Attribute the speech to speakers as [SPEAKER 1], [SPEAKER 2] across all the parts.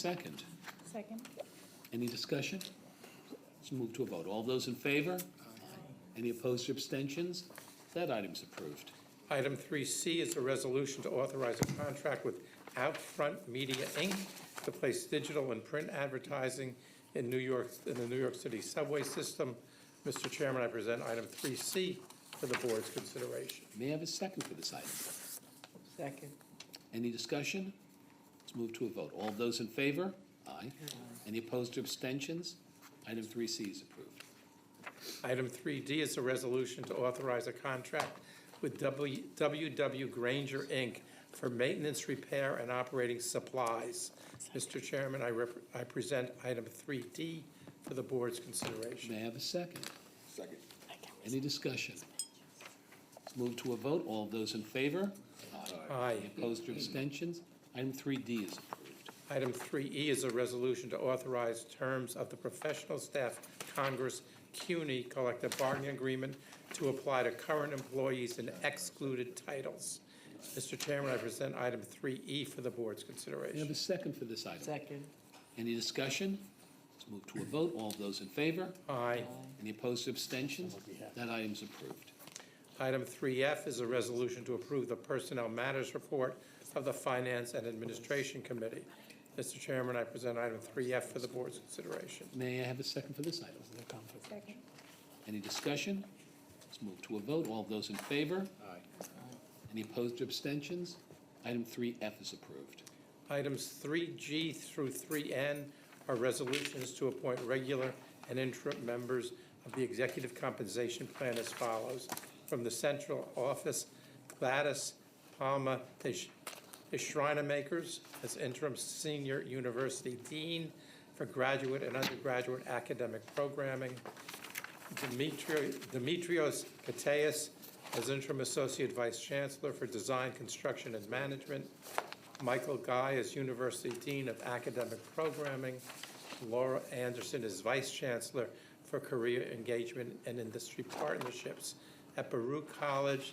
[SPEAKER 1] Second,
[SPEAKER 2] Second.
[SPEAKER 1] any discussion? Let's move to a vote. All those in favor? Any opposed or abstentions? That item's approved.
[SPEAKER 3] Item 3C is a resolution to authorize a contract with Outfront Media, Inc. to place digital and print advertising in New York, in the New York City subway system. Mr. Chairman, I present item 3C for the board's consideration.
[SPEAKER 1] May I have a second for this item?
[SPEAKER 4] Second.
[SPEAKER 1] Any discussion? Let's move to a vote. All those in favor? Aye. Any opposed or abstentions? Item 3C is approved.
[SPEAKER 3] Item 3D is a resolution to authorize a contract with W- WW Granger, Inc. for maintenance, repair, and operating supplies. Mr. Chairman, I rep- I present item 3D for the board's consideration.
[SPEAKER 1] May I have a second? Second. Any discussion? Let's move to a vote. All those in favor?
[SPEAKER 3] Aye.
[SPEAKER 1] Any opposed or abstentions? Item 3D is approved.
[SPEAKER 3] Item 3E is a resolution to authorize terms of the Professional Staff Congress CUNY Collective Bargaining Agreement to apply to current employees in excluded titles. Mr. Chairman, I present item 3E for the board's
[SPEAKER 1] May I have
[SPEAKER 3] consideration.
[SPEAKER 1] a second for this item?
[SPEAKER 4] Second.
[SPEAKER 1] Any discussion? Let's move to a vote. All those in favor?
[SPEAKER 3] Aye.
[SPEAKER 1] Any opposed or abstentions? That item's approved.
[SPEAKER 3] Item 3F is a resolution to approve the Personnel Matters Report of the Finance and Administration Committee. Mr. Chairman, I present item 3F for the board's consideration.
[SPEAKER 1] May I have a second for this item?
[SPEAKER 2] Second.
[SPEAKER 1] Any discussion? Let's move to a vote. All those in favor? Aye. Any opposed or abstentions? Item 3F is approved.
[SPEAKER 3] Items 3G through 3N are resolutions to appoint regular and interim members of the Executive Compensation Plan as follows. From the Central Office, Gladys Palma de Sh- de Schreinemakers as interim senior university dean for graduate and undergraduate academic programming. Demetri- Demetrios Kateas as interim associate vice chancellor for design, construction, and management. Michael Guy is University Dean of Academic Programming. Laura Anderson is Vice Chancellor for Career Engagement and Industry Partnerships. At Baruch College,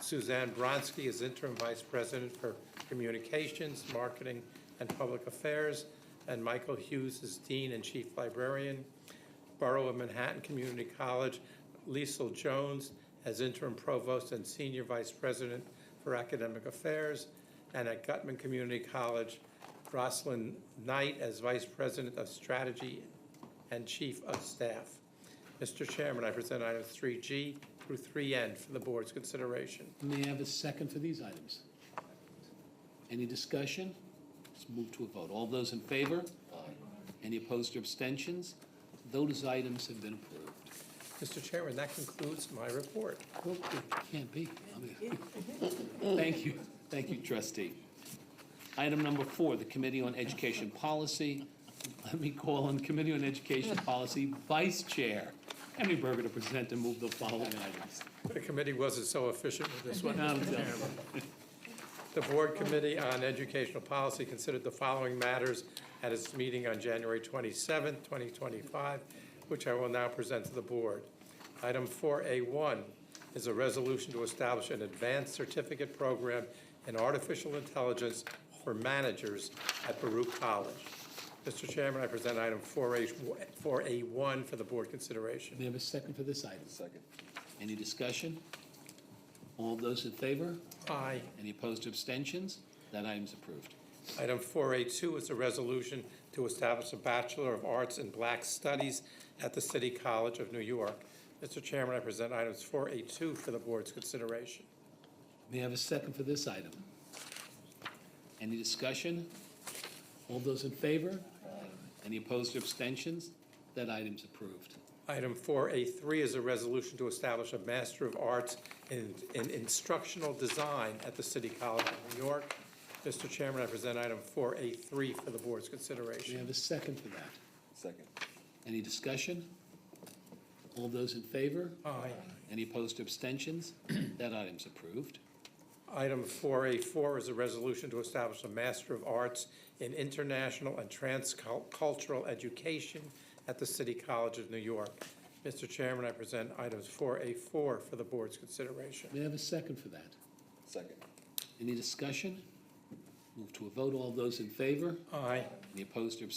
[SPEAKER 3] Suzanne Bronski is Interim Vice President for Communications, Marketing, and Public Affairs. And Michael Hughes is Dean and Chief Librarian. Borough of Manhattan Community College, Liesel Jones as interim provost and senior vice president for academic affairs, and at Gutman Community College, Rosalind Knight as vice president of strategy and chief of staff. Mr. Chairman, I present items 3G through 3N for the board's consideration.
[SPEAKER 1] May I have a second for these items? Any discussion? Let's move to a vote. All those in favor? Aye. Any opposed or abstentions? Those items have been approved.
[SPEAKER 3] Mr. Chairman, that concludes my report.
[SPEAKER 1] Well, it can't be. I mean- Thank you, thank you, trustee. Item number four, the Committee on Education Policy. Let me call on Committee on Education Policy Vice Chair Henry Berger to present and move the following items.
[SPEAKER 3] The committee wasn't so efficient with this one.
[SPEAKER 1] Madam Chair.
[SPEAKER 3] The Board Committee on Educational Policy considered the following matters at its meeting on January 27, 2025, which I will now present to the Board. Item 4A1 is a resolution to establish an advanced certificate program in artificial intelligence for managers at Baruch College. Mr. Chairman, I present item 4A1 for the Board consideration.
[SPEAKER 1] May I have a second for this item? Second. Any discussion? All those in favor?
[SPEAKER 3] Aye.
[SPEAKER 1] Any opposed or abstentions? That item's approved.
[SPEAKER 3] Item 4A2 is a resolution to establish a Bachelor of Arts in Black Studies at the City College of New York. Mr. Chairman, I present items 4A2 for the board's consideration.
[SPEAKER 1] May I have a second for this item? Any discussion? All those in favor? Any opposed or abstentions? That item's approved.
[SPEAKER 3] Item 4A3 is a resolution to establish a Master of Arts in in Instructional Design at the City College of New York. Mr. Chairman, I present item 4A3 for the board's
[SPEAKER 1] May I
[SPEAKER 3] consideration.
[SPEAKER 1] have a second for that? Second. Any discussion? All those in favor?
[SPEAKER 3] Aye.
[SPEAKER 1] Any opposed or abstentions? That item's approved.
[SPEAKER 3] Item 4A4 is a resolution to establish a Master of Arts in International and Transcultural Education at the City College of New York. Mr. Chairman, I present items 4A4 for the board's consideration.
[SPEAKER 1] May I have a second for that? Second. Any discussion? Move to a vote. All those in favor?
[SPEAKER 3] Aye.
[SPEAKER 1] Any opposed or abstaining?